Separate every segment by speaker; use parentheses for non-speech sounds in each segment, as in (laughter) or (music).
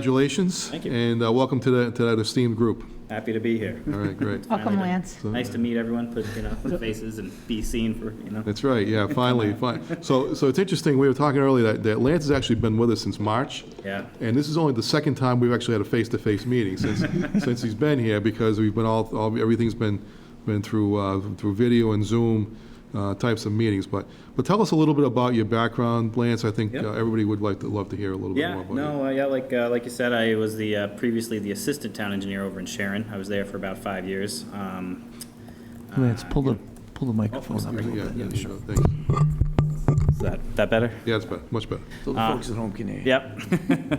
Speaker 1: congratulations.
Speaker 2: Thank you.
Speaker 1: And uh, welcome to that, to that esteemed group.
Speaker 2: Happy to be here.
Speaker 1: All right, great.
Speaker 2: Welcome,
Speaker 3: Welcome,
Speaker 2: Lance.
Speaker 3: Lance.
Speaker 1: So-
Speaker 2: Nice to meet everyone, put, you know, faces and be seen for, you know.
Speaker 1: That's right, yeah, finally, fine. So, so it's interesting, we were talking earlier that, that Lance has actually been with us since March.
Speaker 2: Yeah.
Speaker 1: And this is only the second time we've actually had a face-to-face meeting since, (laughs) since he's been here, because we've been all, all, everything's been, been through, uh, through video and Zoom, uh, types of meetings. But, but tell us a little bit about your background, Lance. I think uh,
Speaker 2: Yeah.
Speaker 1: everybody would like to, love to hear a little bit more
Speaker 2: Yeah,
Speaker 1: about you.
Speaker 2: no, uh, yeah, like, uh, like you said, I was the, uh, previously the assistant town engineer over in Sharon. I was there for about five years. Um,
Speaker 4: Lance, pull the, pull the
Speaker 2: Oh,
Speaker 4: microphone up a
Speaker 2: sorry.
Speaker 4: little
Speaker 1: Yeah,
Speaker 4: bit.
Speaker 1: yeah, sure, thanks.
Speaker 2: Is that, that better?
Speaker 1: Yeah, it's better, much better.
Speaker 4: So the
Speaker 5: Ah.
Speaker 4: folks at home can hear you.
Speaker 2: Yep.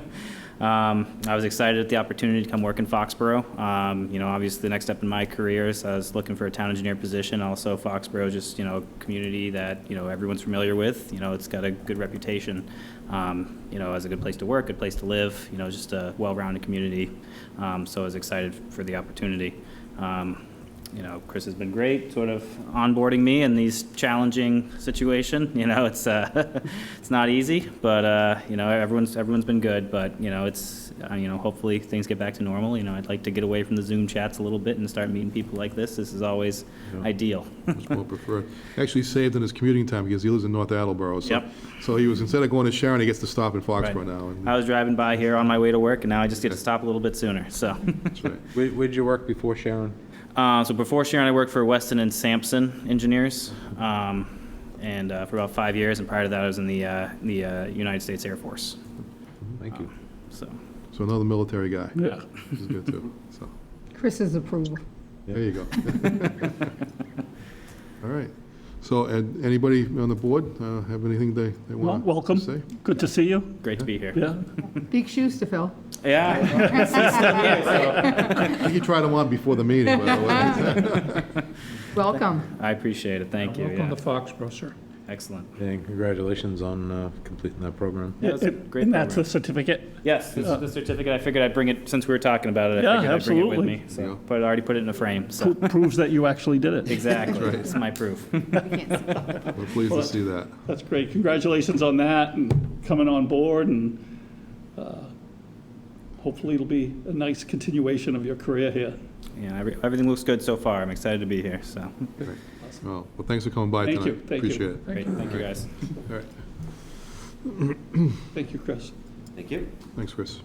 Speaker 2: (laughs) um, I was excited at the opportunity to come work in Foxborough. Um, you know, obviously the next step in my career is I was looking for a town engineer position. Also, Foxborough is just you know a community that you know everyone's familiar with. You know, it's got a good reputation. Um, you know, as a good place to work, good place to live. You know, just a well-rounded community. Um, so I was excited for the opportunity. Um, you know, Chris has been great, sort of onboarding me in these challenging situation. (laughs) You know, it's uh, (laughs) it's not easy, but uh, you know, everyone's everyone's been good. But you know, it's uh, you know, hopefully things get back to normal. You know, I'd like to get away from the Zoom chats a little bit and start meeting people like this. This is always
Speaker 1: (laughs)
Speaker 2: ideal.
Speaker 1: much more preferred. Actually saved in his commuting time because he lives in North Attleboro. so-
Speaker 2: Yep.
Speaker 1: So he was, instead of going to Sharon, he gets to stop in Foxborough
Speaker 2: Right. Uh,
Speaker 1: now. and-
Speaker 2: I was driving by here on my way to work, and now I just get to stop a little bit sooner. So.
Speaker 1: That's right.
Speaker 6: Where, where did you work before Sharon?
Speaker 2: Uh, so before Sharon, I worked for Weston and Sampson Engineers, um, and uh, for about five years. And prior to that, I was in the uh, the uh, United States Air Force. Um,
Speaker 6: Thank you.
Speaker 2: So
Speaker 1: So another military guy. Yeah. Which is good, too. So,
Speaker 3: Chris's approval.
Speaker 1: there you go. (laughs) All right. So, and anybody on the board uh, have anything they, they
Speaker 5: Well,
Speaker 1: want to say?
Speaker 5: welcome. Good to see you.
Speaker 2: great to be here.
Speaker 5: Yeah.
Speaker 3: Big shoes to fill.
Speaker 2: Yeah.
Speaker 1: I think you tried them on before the meeting, by the way.
Speaker 5: (laughs)
Speaker 3: Welcome.
Speaker 2: I appreciate it. Thank you.
Speaker 5: Welcome
Speaker 2: Yeah.
Speaker 5: to Foxborough, sir.
Speaker 2: Excellent.
Speaker 6: And congratulations on uh, completing that program.
Speaker 2: Yeah, it's a great
Speaker 5: And that's
Speaker 2: program.
Speaker 5: a certificate.
Speaker 2: Yes, this is the certificate. I figured I'd bring it since we were talking about it. I
Speaker 5: Yeah,
Speaker 2: figured I'd bring it with
Speaker 5: absolutely.
Speaker 2: me. So, but I already put it in a frame.
Speaker 5: Pro-
Speaker 2: (laughs) So
Speaker 5: Proves that you actually did it.
Speaker 2: exactly, it's my proof. (laughs)
Speaker 1: We're pleased to see that.
Speaker 5: That's great. Congratulations on that and coming on board and uh, hopefully it'll be a nice continuation of your career here.
Speaker 2: Yeah, every- everything looks good so far. I'm excited to be here. So
Speaker 1: Great. Well, Oh, well, thanks for coming by
Speaker 5: Thank
Speaker 1: tonight.
Speaker 5: you, thank you.
Speaker 1: Appreciate it.
Speaker 2: great. Thank you guys.
Speaker 1: All right.
Speaker 5: Thank you, Chris.
Speaker 2: Thank you.
Speaker 1: Thanks, Chris.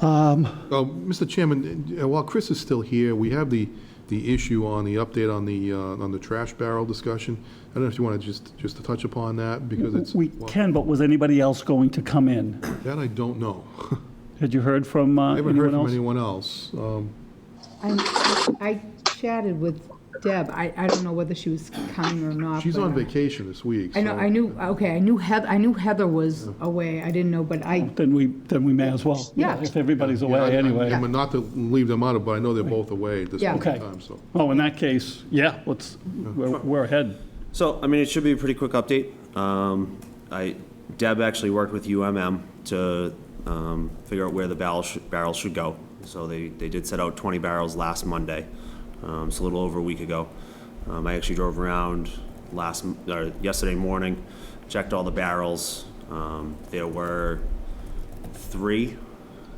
Speaker 5: Um,
Speaker 1: Oh, Mr. Chairman, uh, while Chris is still here, we have the, the issue on the update on the, uh, on the trash barrel discussion. I don't know if you want to just, just to touch upon that, because it's,
Speaker 5: We
Speaker 1: well,
Speaker 5: can, but was anybody else going to come in?
Speaker 1: that I don't know. (laughs)
Speaker 5: Had you heard from
Speaker 1: I
Speaker 5: uh,
Speaker 1: haven't heard
Speaker 5: anyone
Speaker 1: from
Speaker 5: else?
Speaker 1: anyone else. Um,
Speaker 3: I I chatted with Deb. I, I don't know whether she was coming or not.
Speaker 1: She's
Speaker 3: but
Speaker 1: on
Speaker 3: I-
Speaker 1: vacation this week,
Speaker 3: I know, I
Speaker 1: so-
Speaker 3: knew, okay, I knew Heather, I knew Heather was away. I didn't know, but I,
Speaker 5: Then we, then we may as well.
Speaker 3: Yeah.
Speaker 5: If everybody's
Speaker 1: Yeah, I-
Speaker 5: away
Speaker 1: I-
Speaker 5: anyway.
Speaker 1: I'm not to leave them out, but I know they're both away at this
Speaker 3: Yeah.
Speaker 1: point in
Speaker 5: Okay.
Speaker 1: time, so.
Speaker 5: Oh, in that case, yeah, let's, we're we're ahead.
Speaker 7: So, I mean, it should be a pretty quick update. Um, I, Deb actually worked with UMM to um, figure out where the barrel should, barrels should go. So they, they did set out 20 barrels last Monday, um, so a little over a week ago. Um, I actually drove around last, m- or yesterday morning, checked all the barrels. Um, There were three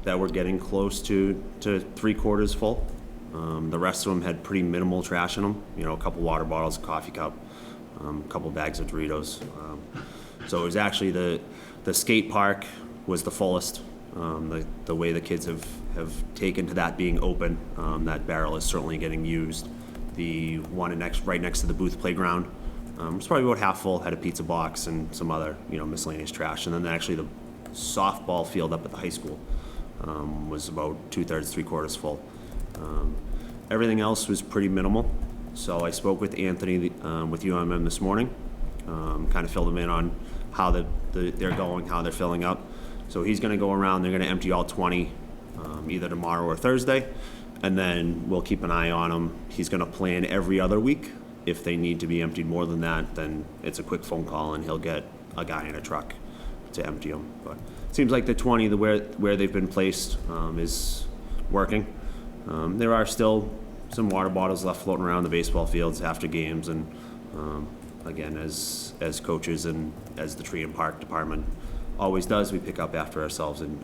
Speaker 7: that were getting close to, to three quarters full. Um, the rest of them had pretty minimal trash in them, you know, a couple water bottles, a coffee cup, um, a couple bags of Doritos. Um, so it was actually the, the skate park was the fullest. Um, the, the way the kids have, have taken to that being open, um, that barrel is certainly getting used. The one in next, right next to the booth playground, um, was probably about half full, had a pizza box and some other, you know, miscellaneous trash. And then actually the softball field up at the high school um, was about two-thirds, three-quarters full. Um, Everything else was pretty minimal, so I spoke with Anthony um, with UMM this morning, kind of filled him in on how the- the- they're going, how they're filling up. So he's going to go around, they're going to empty all 20 um, either tomorrow or Thursday, and then we'll keep an eye on them. He's going to plan every other week. If they need to be emptied more than that, then it's a quick phone call and he'll get a guy in a truck to empty them. But it seems like the 20, the where where they've been placed um, is working. Um, there are still some water bottles left floating around the baseball fields after games, and um, again, as as coaches and as the tree and park department, always does, we pick up after ourselves and